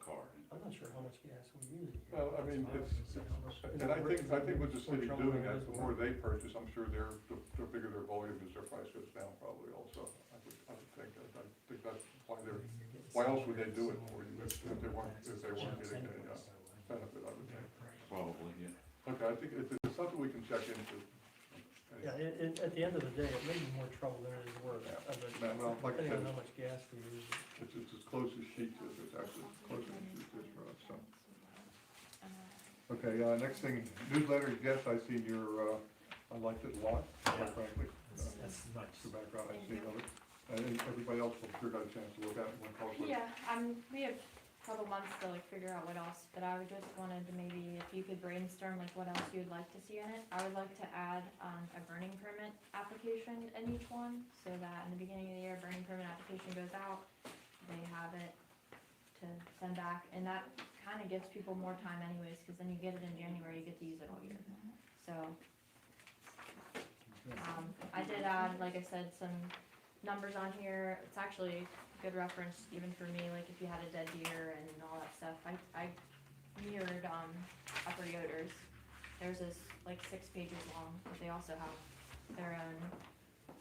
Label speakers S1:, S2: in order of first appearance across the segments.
S1: not sure how much gas we use.
S2: Well, I mean, it's, and I think, I think with the city doing that, the more they purchase, I'm sure their, the the bigger their volume is, their price goes down probably also. I would, I would think, that- I think that's why they're, why else would they do it for you if if they weren't, if they weren't getting a uh, benefit, I would think.
S3: Probably, yeah.
S2: Okay, I think it's, it's something we can check into.
S1: Yeah, it, it, at the end of the day, it may be more trouble than it is worth,
S2: Yeah.
S1: of it,
S2: Man, well, like I
S1: depending on
S2: said-
S1: how much gas we use.
S2: It's, it's as close as she is, it's actually as close as she is for us, so. Okay, uh, next thing, newsletter, yes, I see your, uh, I liked it a lot, quite frankly. Uh,
S4: That's
S2: The
S4: nice.
S2: background I see of it, I think everybody else will sure got a chance to look at it when Carl's.
S5: Yeah, um, we have a couple months to like figure out what else, but I would just wanted to maybe, if you could brainstorm like what else you would like to see in it. I would like to add, um, a burning permit application in each one, so that in the beginning of the year, burning permit application goes out, they have it to send back, and that kinda gives people more time anyways, cause then you get it in January, you get to use it all year, so. Um, I did add, like I said, some numbers on here, it's actually good reference even for me, like if you had a dead deer and all that stuff, I, I mirrored, um, Upper Yoders. There's this, like, six pages long, but they also have their own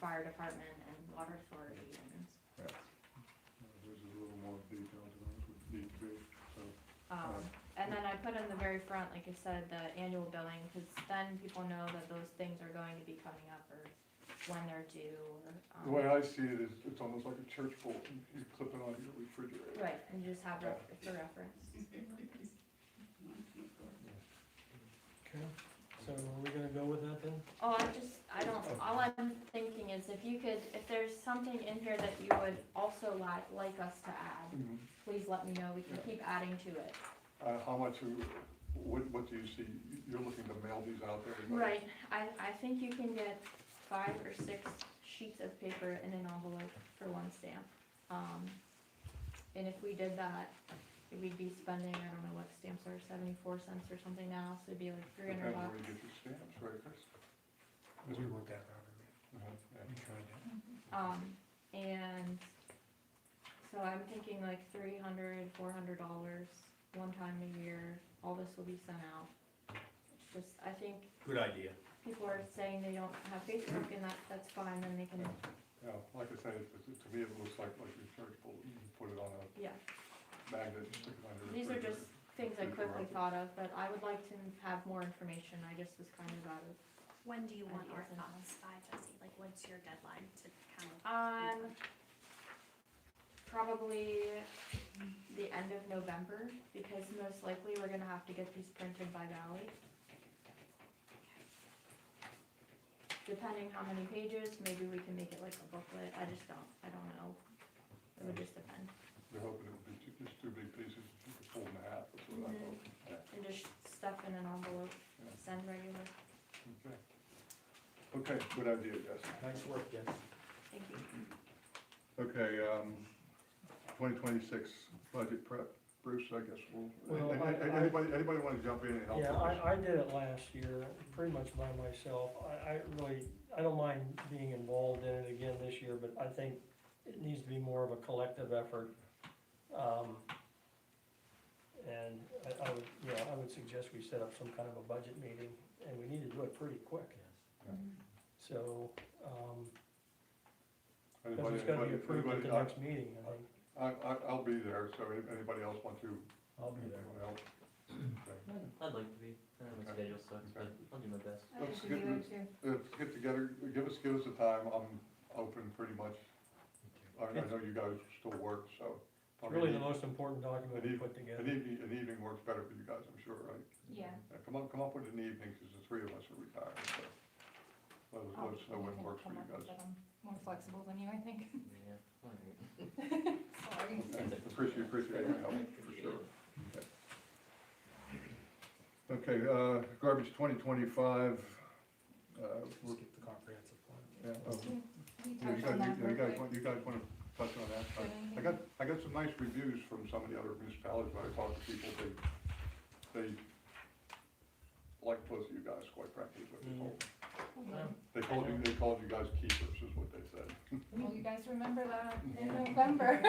S5: fire department and water authority and,
S2: There's a little more detail to those would need to be, so.
S5: um, and then I put in the very front, like I said, the annual billing, cause then people know that those things are going to be coming up or when they're due or, um.
S2: The way I see it is, it's almost like a church bulletin, you clip it on your refrigerator.
S5: Right, and you just have ref- for reference.
S1: Okay. So are we gonna go with that then?
S5: Oh, I just, I don't, all I'm thinking is if you could, if there's something in here that you would also like, like us to add,
S2: Mhm.
S5: please let me know, we can keep adding to it.
S2: Uh, how much, you- what, what do you see, you're looking to mail these out to everybody?
S5: Right, I, I think you can get five or six sheets of paper in an envelope for one stamp. Um, and if we did that, we'd be spending, I don't know what stamps are, seventy-four cents or something now, so it'd be like three hundred
S2: Depends where
S5: bucks.
S2: you get your stamps, right, Chris?
S4: We worked that out.
S2: Uh-huh, yeah.
S4: We tried that.
S5: Um, and so I'm thinking like three hundred, four hundred dollars, one time a year, all this will be sent out. Just, I think
S4: Good idea.
S5: people are saying they don't have Facebook and that, that's fine, then they can,
S2: Yeah, like I said, it- it- to me, it looks like, like your church bulletin, you put it on a
S5: yeah.
S2: magnet, and stick it on your
S5: These are just
S2: refrigerator.
S5: things I quickly thought of, but I would like to have more information, I just was kind of out of.
S6: When do you want
S5: Ideas
S6: our
S5: and-
S6: thoughts by, Jesse? Like, what's your deadline to kind of?
S5: Um, probably the end of November, because most likely we're gonna have to get these printed by Valley. Depending how many pages, maybe we can make it like a booklet, I just don't, I don't know, it would just depend,
S2: They're hoping it would be two- just two big pieces, you could fold in half, that's what I
S5: Mhm.
S2: hope. Yeah.
S5: and just stuff in an envelope, send regular,
S2: Okay, Okay. good idea, yes.
S4: Nice work, Jen.
S5: thank you.
S2: Okay, um, twenty twenty-six budget prep, Bruce, I guess we'll,
S1: Well,
S2: an-
S1: I-
S2: an-
S1: I-
S2: anybody, anybody wanna jump in and help?
S1: Yeah,
S2: us?
S1: I, I did it last year, pretty much by myself. I, I really, I don't mind being involved in it again this year, but I think it needs to be more of a collective effort. Um, And I, I would, yeah, I would suggest we set up some kind of a budget meeting, and we need to do it pretty quick. So, um, because
S2: Anybody-
S1: it's gotta be
S2: anybody-
S1: approved at the
S2: anybody-
S1: next meeting, I think.
S2: I, I, I'll be there, so if anybody else want to?
S4: I'll be there.
S2: anyone else?
S7: I'd like to be, I don't know my
S2: Okay.
S7: schedule sucks, but I'll do my best.
S2: I Let's think we get would Uh, Get together, give us, give us a time, I'm open pretty much, I, I know you guys still work, so.
S1: It's
S2: probably
S1: really
S2: an
S1: the most important document to put
S2: e-
S1: together.
S2: An evening, an evening works better for you guys, I'm sure, right?
S5: Yeah,
S2: Yeah, Come up, come up with an evening, cause the three of us are retired, so. Let us, let us know when works for you guys.
S8: More flexible than you, I think.
S7: Yeah. alright.
S8: Sorry.
S2: Okay, Appreciate, appreciate your help, for sure. Okay, uh, garbage twenty twenty-five, uh, we're-
S4: Skip the comprehensive plan.
S2: yeah, oh,
S8: We
S2: you
S8: touched
S2: guys,
S8: on that
S2: you
S8: real
S2: guys,
S8: quick.
S2: want- you guys wanna touch on that? I- I got, I got some nice reviews from some of the other municipalities, when I talked to people, they, they like both of you guys, quite frankly, is what they told me. They called you, they called you guys keepers, is what they said.
S8: Well, you guys remember that in November.